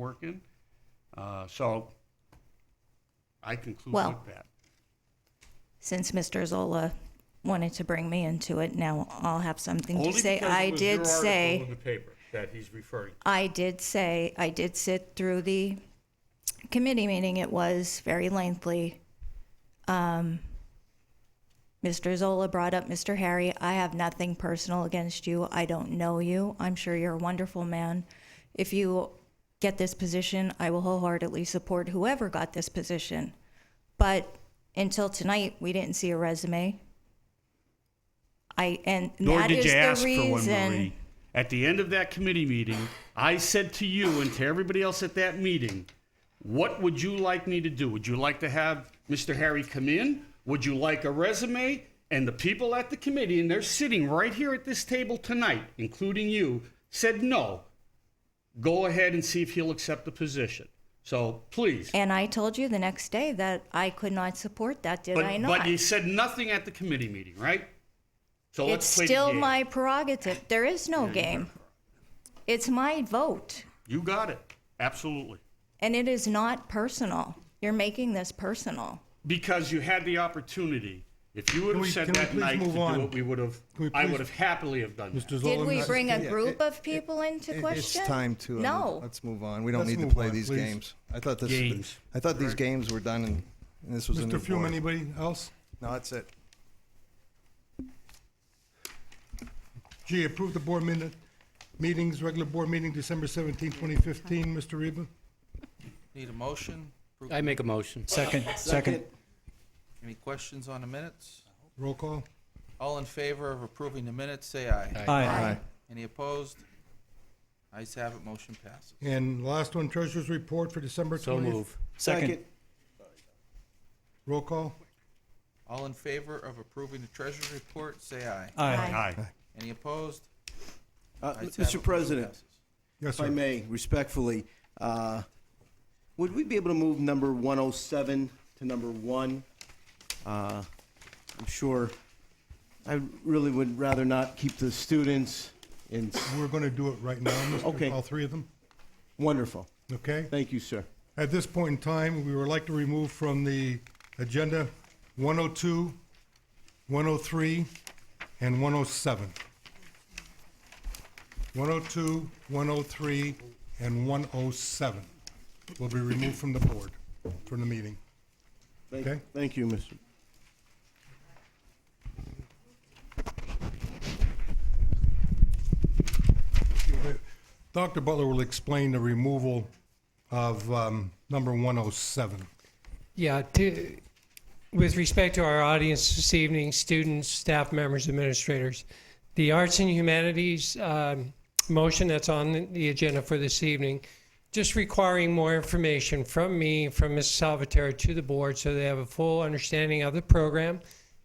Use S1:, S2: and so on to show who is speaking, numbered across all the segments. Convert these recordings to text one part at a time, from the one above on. S1: working. Uh, So I conclude
S2: Well-
S1: with that.
S2: Since Mr. Zola wanted to bring me into it, now I'll have something to
S1: Only
S2: say.
S1: because it
S2: I
S1: was your
S2: did
S1: article
S2: say,
S1: In the paper that he's referring to.
S2: I did say, I did sit through the committee meeting. It was very lengthy. Um, Mr. Zola brought up Mr. Harry. I have nothing personal against you. I don't know you. I'm sure you're a wonderful man. If you get this position, I will wholeheartedly support whoever got this position. But until tonight, we didn't see a resume. I, and
S1: Nor
S2: that
S1: did
S2: is
S1: you ask
S2: the
S1: for one, Marie.
S2: reason.
S1: At the end of that committee meeting, I said to you and to everybody else at that meeting, what would you like me to do? Would you like to have Mr. Harry come in? Would you like a resume? And the people at the committee, and they're sitting right here at this table tonight, including you, said no. Go ahead and see if he'll accept the position. So please.
S2: And I told you the next day that I could not support that, did
S1: but,
S2: I
S1: but
S2: not?
S1: you said nothing at the committee meeting, right? So
S2: It's
S1: let's play the
S2: still
S1: game.
S2: my prerogative. There is no game. It's my vote,
S1: You got it. Absolutely.
S2: and it is not personal. You're making this personal.
S1: Because you had the opportunity. If you would
S3: Can
S1: have
S3: we-
S1: said
S3: can we
S1: that
S3: please
S1: night to
S3: move
S1: do
S3: on?
S1: it, we would have,
S3: Can we
S1: I
S3: please-
S1: would have happily have done that.
S3: Mr. Zola.
S2: Did we
S3: Mr.
S2: bring a
S3: Yeah,
S2: group
S3: it-
S2: of people into
S4: It-
S2: question?
S4: It's time to. uh,
S2: No.
S4: Let's move on. We don't
S3: Let's
S4: need to
S3: move
S4: play
S3: on,
S4: these
S3: please.
S4: games. I thought this.
S1: Games.
S4: I thought these games were done, and, and this was a new
S3: Mr. Fume,
S4: board.
S3: anybody else?
S4: No, that's it.
S3: G, approve the board minute, meetings, regular board meeting, December 17, 2015. Mr. Reba?
S5: Need a motion?
S6: I make a motion. Second, second.
S5: Any questions on the minutes?
S3: Roll call.
S5: All in favor of approving the minutes, say aye.
S6: Aye.
S4: Aye.
S5: Any opposed? Ayes have it, motion passes.
S3: And last one, treasurer's report for December 20th.
S6: So move. Second.
S3: Roll call.
S5: All in favor of approving the treasurer's report, say aye.
S6: Aye.
S5: Any opposed?
S7: Uh,
S5: Ayes have it, motion
S7: Mr. President,
S5: passes.
S3: Yes,
S7: if I
S3: sir.
S7: may, respectfully, uh, would we be able to move number 107 to number 1? Uh, I'm sure, I really would rather not keep the students in,
S3: We're going to do it right now,
S7: Okay.
S3: Mr. All three of them,
S7: wonderful.
S3: okay?
S7: Thank you, sir.
S3: At this point in time, we would like to remove from the agenda 102, 103, and 107. 102, 103, and 107 will be removed from the board, from the meeting.
S7: Thank-
S3: Okay.
S7: Thank you, Mr.
S3: Dr. Butler will explain the removal of um, number 107.
S8: Yeah, to, with respect to our audience this evening, students, staff members, administrators, the Arts and Humanities um, motion that's on the agenda for this evening, just requiring more information from me, from Ms. Salvatore to the board so they have a full understanding of the program,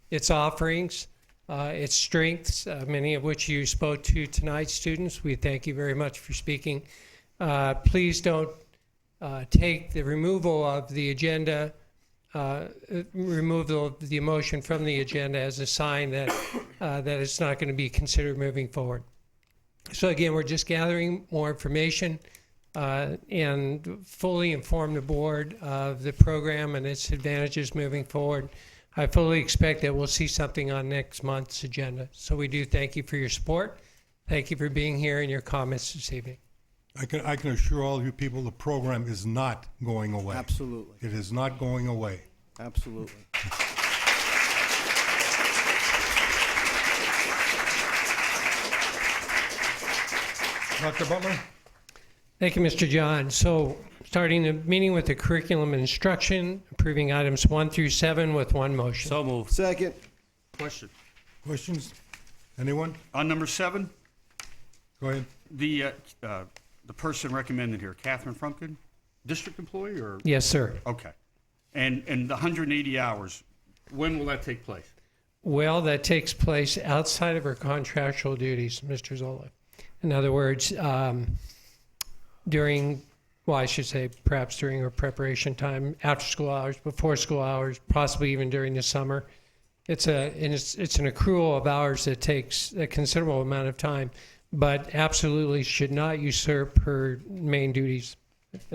S8: its offerings, uh, its strengths, uh, many of which you spoke to tonight, students. We thank you very much for speaking. Uh, please don't uh, take the removal of the agenda, uh, removal of the motion from the agenda as a sign that, uh, that it's not going to be considered moving forward. So again, we're just gathering more information uh, and fully inform the board of the program and its advantages moving forward. I fully expect that we'll see something on next month's agenda. So we do thank you for your support. Thank you for being here and your comments this evening.
S3: I can, I can assure all you people, the program is not going away.
S7: Absolutely,
S3: It is not going away.
S7: absolutely.
S3: Dr. Butler?
S8: Thank you, Mr. John. So, starting the meeting with the curriculum instruction, approving items one through seven with one motion.
S6: So move.
S7: Second,
S1: Question.
S3: Questions? Anyone?
S1: On number seven,
S3: Go ahead.
S1: the, uh, uh, the person recommended here, Catherine Frumpkin, district employee or?
S8: Yes, sir.
S1: Okay. And, and the 180 hours, when will that take place?
S8: Well, that takes place outside of her contractual duties, Mr. Zola. In other words, um, during, well, I should say perhaps during her preparation time, after school hours, before school hours, possibly even during the summer. It's a, and it's, it's an accrual of hours that takes a considerable amount of time, but absolutely should not usurp her main duties.